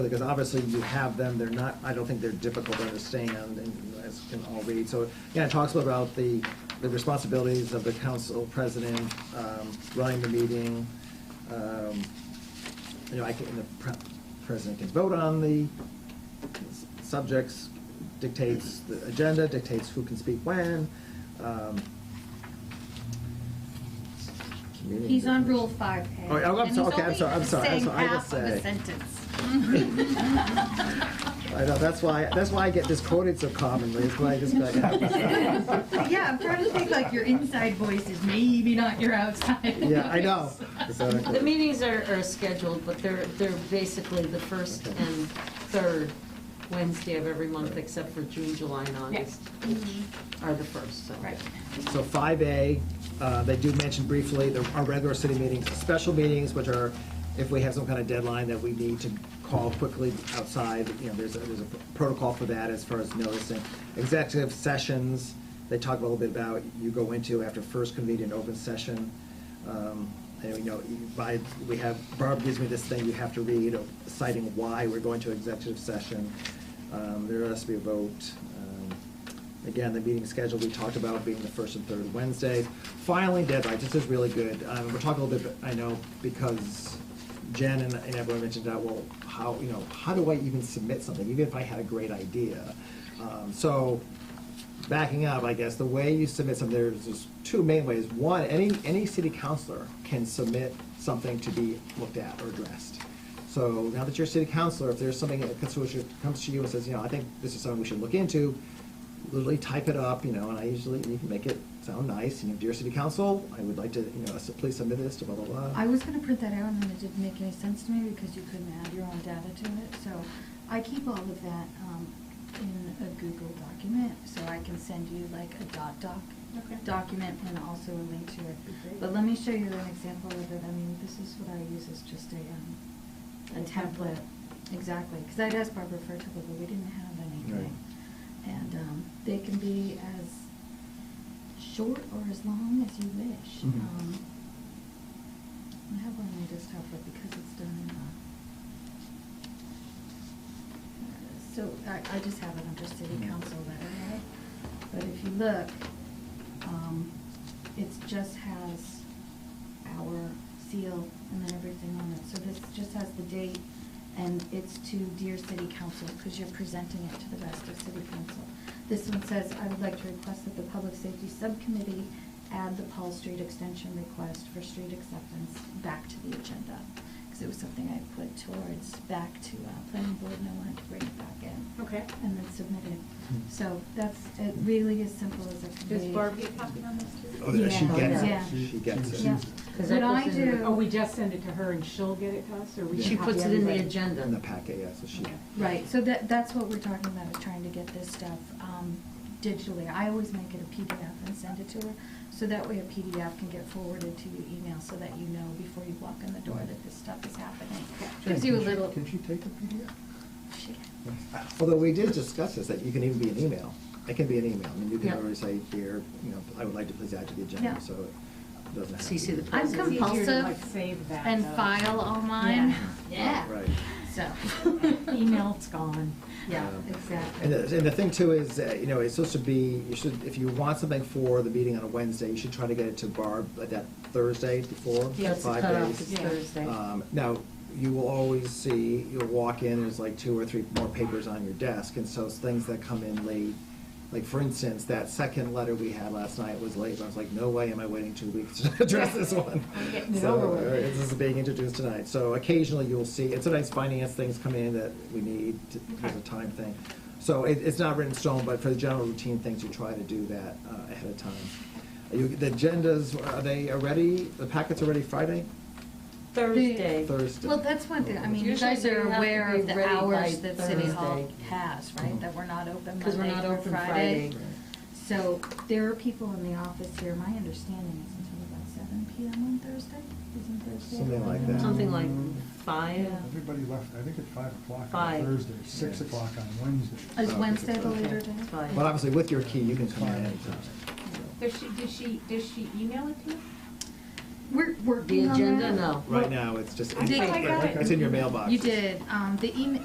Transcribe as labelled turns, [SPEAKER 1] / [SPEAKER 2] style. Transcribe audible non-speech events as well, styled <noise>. [SPEAKER 1] Because obviously you have them, they're not, I don't think they're difficult to understand and as can all read. So, yeah, it talks about the, the responsibilities of the council president, um, running the meeting. um, You know, I can, the pre- president can vote on the s- subjects, dictates the agenda, dictates who can speak when. um, community
[SPEAKER 2] He's on
[SPEAKER 1] difference.
[SPEAKER 2] rule five A.
[SPEAKER 1] Oh, I'm
[SPEAKER 2] and
[SPEAKER 1] sorry,
[SPEAKER 2] he's
[SPEAKER 1] okay, I'm
[SPEAKER 2] only
[SPEAKER 1] sorry, I'm sorry, I'm
[SPEAKER 2] saying
[SPEAKER 1] sorry, I will
[SPEAKER 2] half of the
[SPEAKER 1] say.
[SPEAKER 2] sentence.
[SPEAKER 1] I know, that's why, that's why I get this quoted so commonly, it's why I just
[SPEAKER 2] <laughs>
[SPEAKER 1] like.
[SPEAKER 2] Yeah, I'm trying to think like your inside voice is maybe not your outside.
[SPEAKER 1] Yeah,
[SPEAKER 2] <laughs>
[SPEAKER 1] I know. Exactly.
[SPEAKER 3] The meetings are, are scheduled, but they're, they're basically the first
[SPEAKER 1] Okay.
[SPEAKER 3] and third Wednesday of every month, except for June, July, and August are the first, so.
[SPEAKER 2] Right.
[SPEAKER 1] So five A, uh, they do mention briefly, the, our regular city meetings, special meetings, which are, if we have some kind of deadline that we need to call quickly outside, you know, there's, a- there's a protocol for that as far as noticing. Executive sessions, they talk a little bit about, you go into after first convened in open session. Um, and, you know, by, we have, Barb gives me this thing you have to read citing why we're going to executive session. Um, there has to be a vote, um, Again, the meeting schedule we talked about being the first and third Wednesdays. Filing deadline, this is really good. Um, We're talking a little bit, I know, because Jen and and everyone mentioned that, well, how, you know, how do I even submit something, even if I had a great idea? Um, So, backing up, I guess, the way you submit something, there's just two main ways. One, any, any city councillor can submit something to be looked at or addressed. So now that you're a city councillor, if there's something that comes to you- comes to you and says, you know, I think this is something we should look into, literally type it up, you know, and I usually, you can make it sound nice, you know, dear city council, I would like to, you know, so please submit this to blah, blah, blah.
[SPEAKER 4] I was gonna print that out, and then it didn't make any sense to me because you couldn't add your own data to it, so I keep all of that, um, in a Google document, so I can send you like a dot doc
[SPEAKER 2] Okay.
[SPEAKER 4] document and also a link to it.
[SPEAKER 2] Great.
[SPEAKER 4] But let me show you an example of it, I mean, this is what I use as just a, um, a
[SPEAKER 2] A template.
[SPEAKER 4] template. Exactly, because I'd asked Barbara for a template, but we didn't have anything. And, um, they can be as short or as long as you wish.
[SPEAKER 1] Mhm.
[SPEAKER 4] Um, I have one I just have, but because it's done in a. uh, So I, I just have it under city council letterhead, but if you look, um, it just has our seal and then everything on it. So this just has the date and it's to dear city council, because you're presenting it to the rest of city council. This one says, I would like to request that the public safety subcommittee add the Paul Street extension request for street acceptance back to the agenda. Because it was something I put towards back to uh, planning board and I wanted to bring it back in.
[SPEAKER 2] Okay.
[SPEAKER 4] And then submit it.
[SPEAKER 1] Hmm.
[SPEAKER 4] So that's, it really as simple as it can be.
[SPEAKER 2] Does Barb get copied on this too?
[SPEAKER 1] Oh, there, she
[SPEAKER 4] Yeah.
[SPEAKER 1] gets
[SPEAKER 4] Yeah.
[SPEAKER 1] it, she gets it.
[SPEAKER 4] Yeah.
[SPEAKER 3] Because
[SPEAKER 4] What
[SPEAKER 3] that
[SPEAKER 4] I
[SPEAKER 3] goes in the-
[SPEAKER 4] do.
[SPEAKER 5] Oh, we just send it to her and she'll get it to us, or we
[SPEAKER 1] Yeah.
[SPEAKER 3] She
[SPEAKER 5] should copy
[SPEAKER 3] puts it in the
[SPEAKER 5] everybody?
[SPEAKER 3] agenda.
[SPEAKER 1] In the packet, yeah, so she.
[SPEAKER 5] Okay.
[SPEAKER 4] Right, so that, that's what we're talking about, is trying to get this stuff um, digitally. I always make it a PDF and send it to her, so that way a PDF can get forwarded to your email, so that you know before you walk in the door that this stuff is happening. Gives you a little.
[SPEAKER 6] Can she take a PDF?
[SPEAKER 4] Shit.
[SPEAKER 1] Although we did discuss this, that you can even be an email. It can be an email. I mean, you can
[SPEAKER 3] Yeah.
[SPEAKER 1] already say here, you know, I would like to please add to the
[SPEAKER 4] Yeah.
[SPEAKER 1] agenda, so it doesn't have to.
[SPEAKER 3] CC the
[SPEAKER 1] be-
[SPEAKER 2] I'm
[SPEAKER 3] It's easier to,
[SPEAKER 5] like,
[SPEAKER 2] compulsive
[SPEAKER 5] save that,
[SPEAKER 2] and
[SPEAKER 5] though.
[SPEAKER 2] file all mine.
[SPEAKER 4] Yeah.
[SPEAKER 1] Right.
[SPEAKER 2] So,
[SPEAKER 5] Email's gone.
[SPEAKER 4] Yeah,
[SPEAKER 1] Um, And
[SPEAKER 4] exactly.
[SPEAKER 1] the, and the thing too is, uh, you know, it's supposed to be, you should, if you want something for the meeting on a Wednesday, you should try to get it to Barb like that Thursday before, five days.
[SPEAKER 3] Yes, the cutoff is
[SPEAKER 5] Yeah.
[SPEAKER 3] Thursday.
[SPEAKER 1] Um, Now, you will always see, you'll walk in, there's like two or three more papers on your desk, and so it's things that come in late. Like, for instance, that second letter we had last night was late, but I was like, no way am I waiting two weeks to <laughs> address this one.
[SPEAKER 5] <laughs> I'm getting it
[SPEAKER 1] So,
[SPEAKER 5] over with.
[SPEAKER 1] uh, This is being introduced tonight, so occasionally you'll see, and sometimes finance things come in that we need, to- there's a time thing. So it, it's not written in stone, but for the general routine things, you try to do that uh, ahead of time. Are you- The agendas, are they already, the packets are ready Friday?
[SPEAKER 3] Thursday.
[SPEAKER 1] Thursday.
[SPEAKER 4] Well, that's one thing, I mean, you guys
[SPEAKER 3] Usually
[SPEAKER 4] are
[SPEAKER 3] you have to
[SPEAKER 4] aware
[SPEAKER 3] be
[SPEAKER 4] of the
[SPEAKER 3] ready
[SPEAKER 4] hours
[SPEAKER 3] by
[SPEAKER 4] that City Hall
[SPEAKER 3] Thursday.
[SPEAKER 4] has,
[SPEAKER 1] Mm-hmm.
[SPEAKER 4] right? That we're not open
[SPEAKER 3] Because we're
[SPEAKER 4] Monday
[SPEAKER 3] not
[SPEAKER 4] through
[SPEAKER 3] open Friday.
[SPEAKER 4] So there are people in the office here, my understanding is until about seven PM on Thursday, isn't Thursday?
[SPEAKER 1] Something like that.
[SPEAKER 3] Something like five,
[SPEAKER 4] Yeah.
[SPEAKER 6] Everybody left, I think at five o'clock on
[SPEAKER 3] Five.
[SPEAKER 6] Thursday, six
[SPEAKER 1] Yeah.
[SPEAKER 6] o'clock on Wednesday.
[SPEAKER 4] Is Wednesday the later day?
[SPEAKER 3] five.
[SPEAKER 1] But obviously, with your key, you can come in anytime.
[SPEAKER 2] does she, does she, does she email it to you?
[SPEAKER 4] We're working
[SPEAKER 3] The
[SPEAKER 4] on
[SPEAKER 3] agenda,
[SPEAKER 4] that.
[SPEAKER 3] no.
[SPEAKER 1] Right now, it's just,
[SPEAKER 2] I think I got it.
[SPEAKER 1] it's in your mailbox.
[SPEAKER 4] You did, um, the email,